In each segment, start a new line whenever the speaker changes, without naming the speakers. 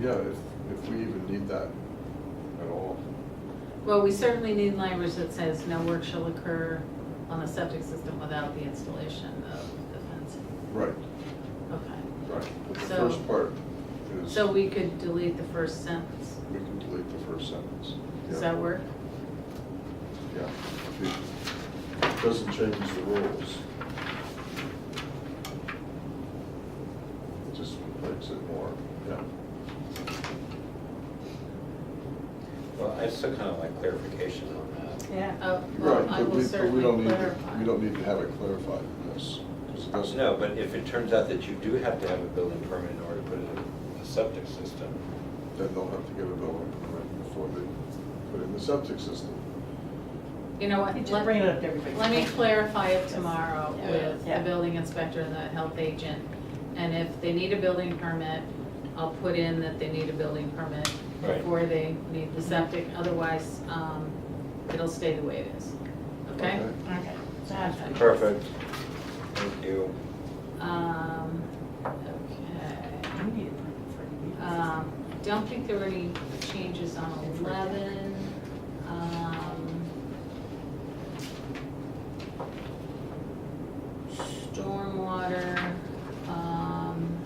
yeah, if, if we even need that at all.
Well, we certainly need language that says no work shall occur on the septic system without the installation of the fencing.
Right,
Okay.
right. But the
So-
first part is,
So we could delete the first sentence.
we can delete the first sentence.
Does
Yeah.
that work?
Yeah. It Doesn't change the rules. It Just makes it more, yeah.
Well, I still kind of like clarification on that.
Yeah. Oh,
Right,
well,
but
I
we,
will
but we don't
certainly
need, to-
clarify.
we don't need to have it clarified in this, because it doesn't.
No, but if it turns out that you do have to have a building permit in order to put in a septic system,
Then they'll have to get a building permit before they put in the septic system.
You know what?
You Just
let-
bring it up to everybody.
Let me clarify it tomorrow
Yeah.
with the
Yeah.
building inspector and the health agent. And if they need a building permit, I'll put in that they need a building permit
Right.
before they need the septic. Otherwise, um, it'll stay the way it is. Okay?
Okay.
Okay, sounds good.
perfect. Thank you.
Um, okay.
You need a permit for your meeting.
Um, Don't think there were any changes on 11. Um, Stormwater. um,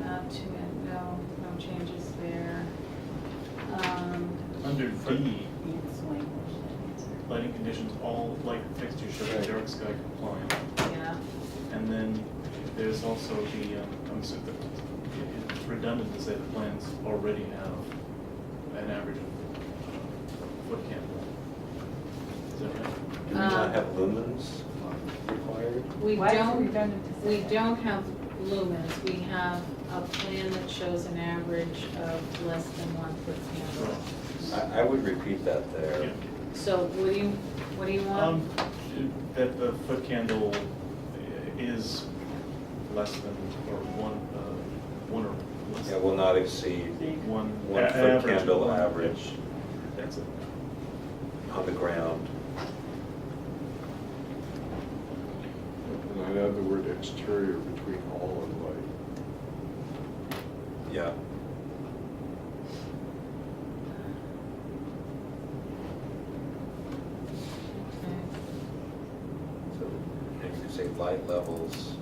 Not too, no, no changes there. Um,
Under D,
Yes, language, that's right.
lighting conditions, all light fixtures should be dark sky compliant.
Yeah,
And then there's also the, um, I'm sorry, the- it- it's redundant to say the plans already have an average of foot candle. Is that right?
Do we not
Um,
have lumens required?
we don't.
Why is it redundant to say
We
that?
don't have lumens, we have a plan that shows an average of less than one foot candle.
Right.
I, I would repeat that there.
Yeah.
So what do you, what do you
Um,
want?
that the foot candle is less than, or one, uh, one or less.
Yeah, will not exceed
One.
one
a-
foot
average,
candle
one-
average
That's it.
on the ground.
And I'd add the word exterior between all and light.
Yeah.
Okay.
So maybe you could say light levels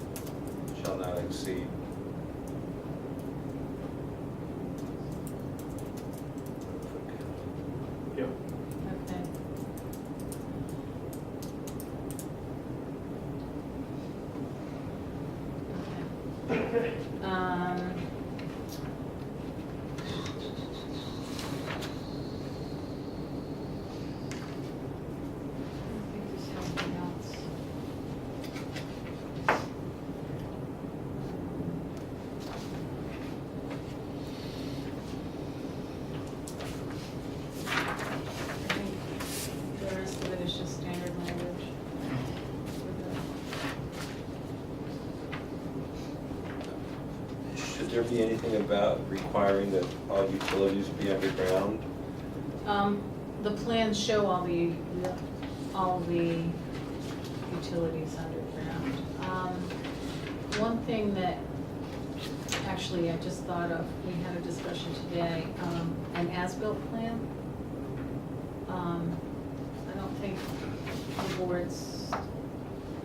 shall not exceed.
Yep.
Okay. Okay. Um, I think there's something else. I think The rest of it is just standard language.
Should there be anything about requiring that all utilities be underground?
Um, the plans show all the, all the utilities underground. Um, One thing that, actually, I just thought of, we had a discussion today, um, an as-built plan. Um, I don't think the board's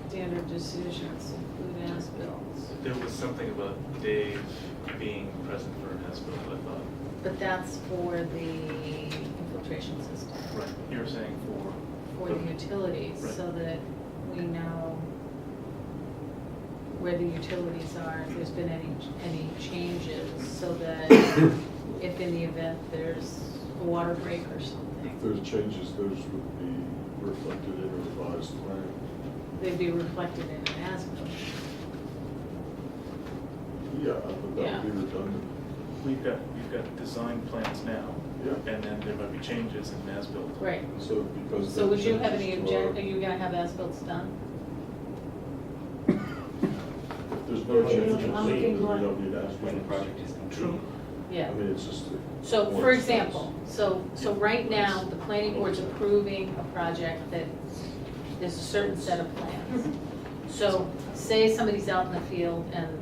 standard decisions include as-bills,
There was something about Dave being present for an as-built, I thought.
but that's for the infiltration system.
Right. You were saying for.
for the utilities, so
Right.
that we know where the utilities are, if there's been any, any changes, so that if in the event there's a water break or
If
something,
there's changes, those would be reflected in a revised plan.
they'd be reflected in an as-built.
Yeah, but that would be redundant.
We've got, we've got design plans now.
Yeah.
And then there might be changes in an as-built.
Right.
So because.
So
that
would you have any
changes to our-
objection, are you gonna have as-bills done?
If there's no changes, then we don't need as
When the project is complete.
I
Yeah.
mean, it's just. the
So, for
board's
example, so, so right now, the planning board's approving a project that, there's a certain set of plans. So say somebody's out in the field and